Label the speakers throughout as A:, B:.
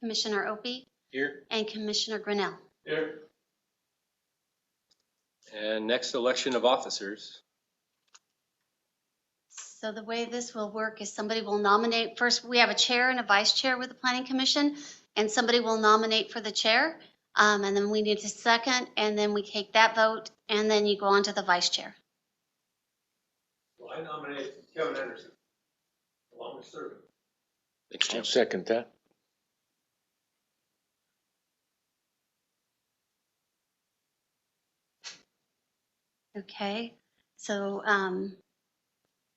A: Commissioner Opie,
B: Here.
A: and Commissioner Grinnell.
B: Here.
C: And next, election of officers.
A: So the way this will work is somebody will nominate, first, we have a chair and a vice chair with the planning commission, and somebody will nominate for the chair. Um, and then we need a second, and then we take that vote, and then you go on to the vice chair.
B: Well, I nominate Kevin Anderson, the longest serving.
C: Thanks, Jim.
D: I'll second that.
A: Okay, so, um,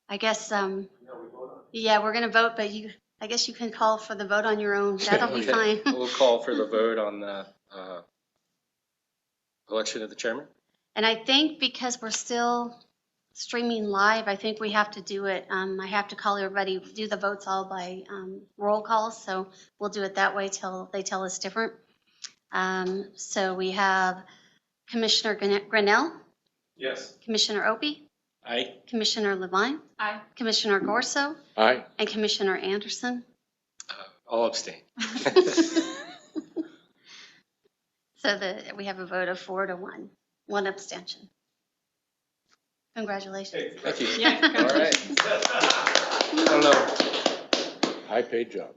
A: I guess, um,
B: Now we vote on
A: yeah, we're gonna vote, but you, I guess you can call for the vote on your own. That'll be
C: Okay,
A: fine.
C: We'll call for the vote on the uh, election of the chairman.
A: And I think because we're still streaming live, I think we have to do it, um, I have to call everybody, do the votes all by, um, roll calls, so we'll do it that way till they tell us different. Um, so we have Commissioner Grin- Grinnell,
B: Yes.
A: Commissioner Opie,
C: Aye.
A: Commissioner Levine. Aye. Commissioner Gorso,
D: Aye.
A: and Commissioner Anderson.
C: All abstain.
A: So that we have a vote of four to one, one abstention. Congratulations.
C: Thank you.
A: Yeah,
C: All right. I don't know.
D: High paid job.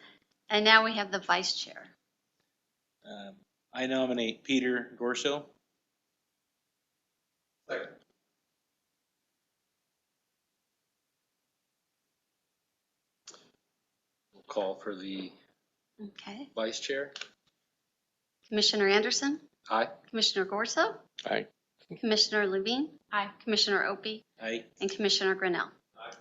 A: And now we have the vice chair.
E: Um, I nominate Peter Gorso.
B: Second.
C: We'll Call for the
A: Okay.
C: vice chair.
A: Commissioner Anderson,
C: Aye.
A: Commissioner Gorso,
D: Aye.
A: Commissioner Levine. Aye. Commissioner Opie,
E: I,
A: and Commissioner Grinnell.
B: Aye.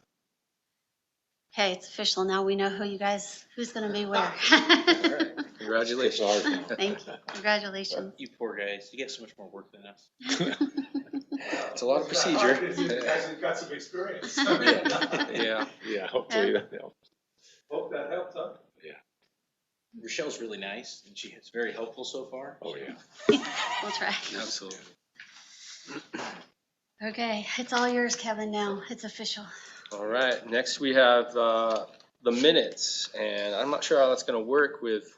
A: Okay, it's official. Now we know who you guys, who's going to be where.
C: All right.
D: It's
C: Congratulations.
D: ours now.
A: Thank you. Congratulations.
E: you poor guys, you get so much more work than us.
C: It's a lot of procedure.
B: He's Actually got some experience.
C: Yeah.
D: Yeah, hopefully that helps.
B: Hope that helps, huh?
E: Rochelle's really nice and she is very helpful so far.
D: Mm-hmm. Oh, yeah.
A: We'll try.
C: Absolutely.
A: Okay, it's all yours, Kevin, now. It's official.
C: All right, next we have uh, the minutes, and I'm not sure how that's going to work with,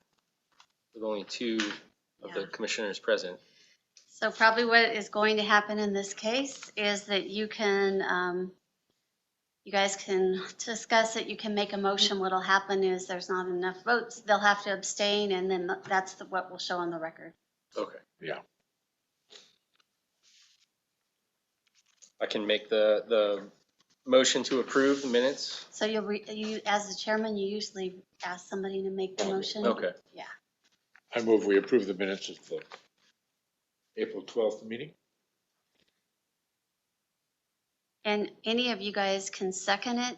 C: with only two of the
A: Yeah.
C: commissioners present.
A: So probably what is going to happen in this case is that you can, um, you guys can discuss it, you can make a motion. What'll happen is there's not enough votes, they'll have to abstain, and then that's the- what will show on the record.
C: Okay.
D: Yeah.
C: I can make the, the motion to approve the minutes?
A: So you'll, re- you, as the chairman, you usually ask somebody to make the motion.
C: Okay,
D: I move we approve the minutes of the April 12th meeting.
A: And any of you guys can second it?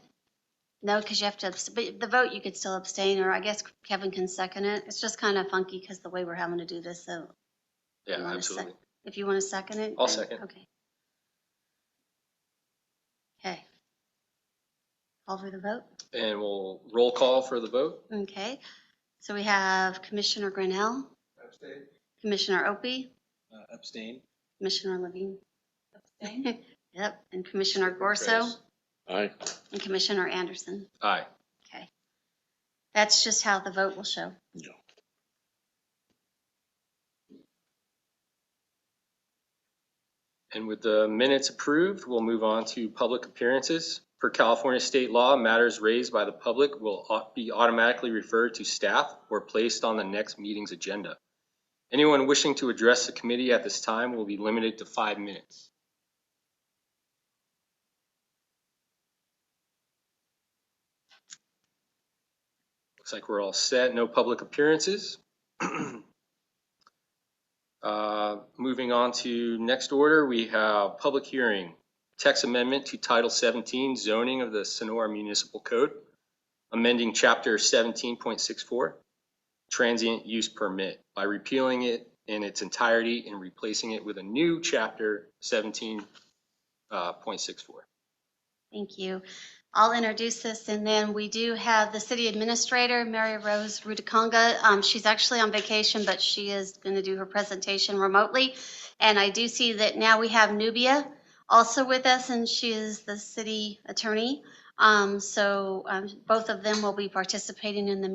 A: No, because you have to, abs- but the vote, you could still abstain, or I guess Kevin can second it. It's just kind of funky because the way we're having to do this, so
C: yeah,
A: You want a
C: absolutely.
A: If you want to second it?
C: I'll
A: then-
C: second.
A: Okay. Okay. Call for the vote.
C: And we'll roll call for the vote?
A: Okay. So we have Commissioner Grinnell,
B: Abstain.
A: Commissioner Opie,
E: Uh, Abstain.
A: Commissioner Levine. Yep, and Commissioner Gorso
D: Aye.
A: and Commissioner Anderson.
C: Aye.
A: That's just how the vote will show.
D: No.
C: And with the minutes approved, we'll move on to public appearances. Per California state law, matters raised by the public will au- be automatically referred to staff or placed on the next meeting's agenda. Anyone wishing to address the committee at this time will be limited to five minutes. Looks like we're all set. No public appearances. Uh, Moving on to next order, we have public hearing, text amendment to Title 17 zoning of the Sonora Municipal Code, amending Chapter 17.64, transient use permit by repealing it in its entirety and replacing it with a new Chapter uh, 17.64.
A: Thank you. I'll introduce this, and then we do have the city administrator, Mary Rose Rudakanga. Um, She's actually on vacation, but she is going to do her presentation remotely. And I do see that now we have Nubia also with us, and she is the city attorney. Um, So um, both of them will be participating in the